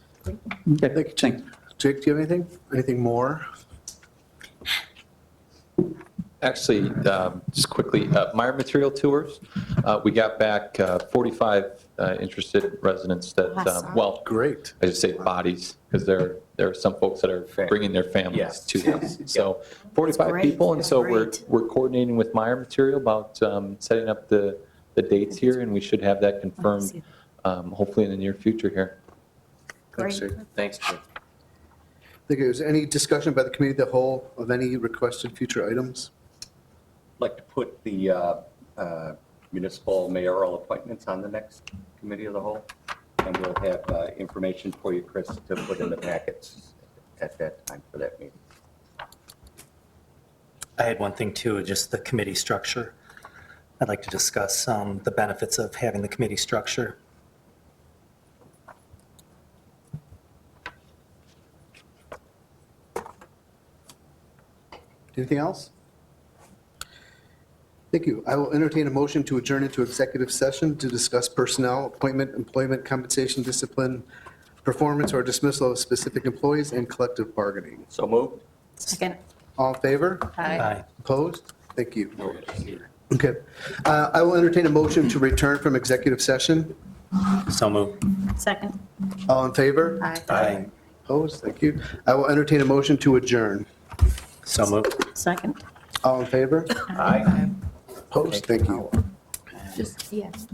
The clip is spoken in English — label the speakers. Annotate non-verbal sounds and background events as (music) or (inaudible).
Speaker 1: Okay, thank you, Ching.
Speaker 2: Jake, do you have anything? Anything more?
Speaker 3: Actually, um, just quickly, uh, Meyer Material Tours, uh, we got back uh, 45 uh, interested residents that,
Speaker 4: I saw.
Speaker 3: um, well,
Speaker 2: Great.
Speaker 3: I just say bodies, because there, there are some folks that are
Speaker 5: Fam-
Speaker 3: bringing their families
Speaker 5: Yes.
Speaker 3: to
Speaker 5: (laughs)
Speaker 3: us. So 45
Speaker 4: great.
Speaker 3: people, and
Speaker 4: That's
Speaker 3: so we're,
Speaker 4: great.
Speaker 3: we're coordinating with Meyer Material about um, setting up the, the dates here, and we should have that confirmed, um, hopefully in the near future here.
Speaker 2: Thanks,
Speaker 4: Great.
Speaker 2: Jake.
Speaker 5: Thanks, Jim.
Speaker 2: I think there's any discussion by the committee of the whole of any requested future items?
Speaker 5: I'd like to put the uh, uh, municipal mayoral appointments on the next committee of the whole. And we'll have uh, information for you, Chris, to put in the packets at that time for that meeting.
Speaker 6: I had one thing too, just the committee structure. I'd like to discuss um, the benefits of having the committee structure.
Speaker 2: Anything else? Thank you. I will entertain a motion to adjourn into executive session to discuss personnel, appointment, employment, compensation, discipline, performance, or dismissal of specific employees and collective bargaining.
Speaker 5: So moved.
Speaker 4: Second.
Speaker 2: All in favor?
Speaker 6: Aye.
Speaker 2: Opposed? Thank you. Okay. Uh, I will entertain a motion to return from executive session.
Speaker 6: So moved.
Speaker 4: Second.
Speaker 2: All in favor?
Speaker 4: Aye.
Speaker 6: Aye.
Speaker 2: Opposed? Thank you. I will entertain a motion to adjourn.
Speaker 6: So moved.
Speaker 4: Second.
Speaker 2: All in favor?
Speaker 5: Aye.
Speaker 2: Opposed? Thank you.
Speaker 4: Just, yes.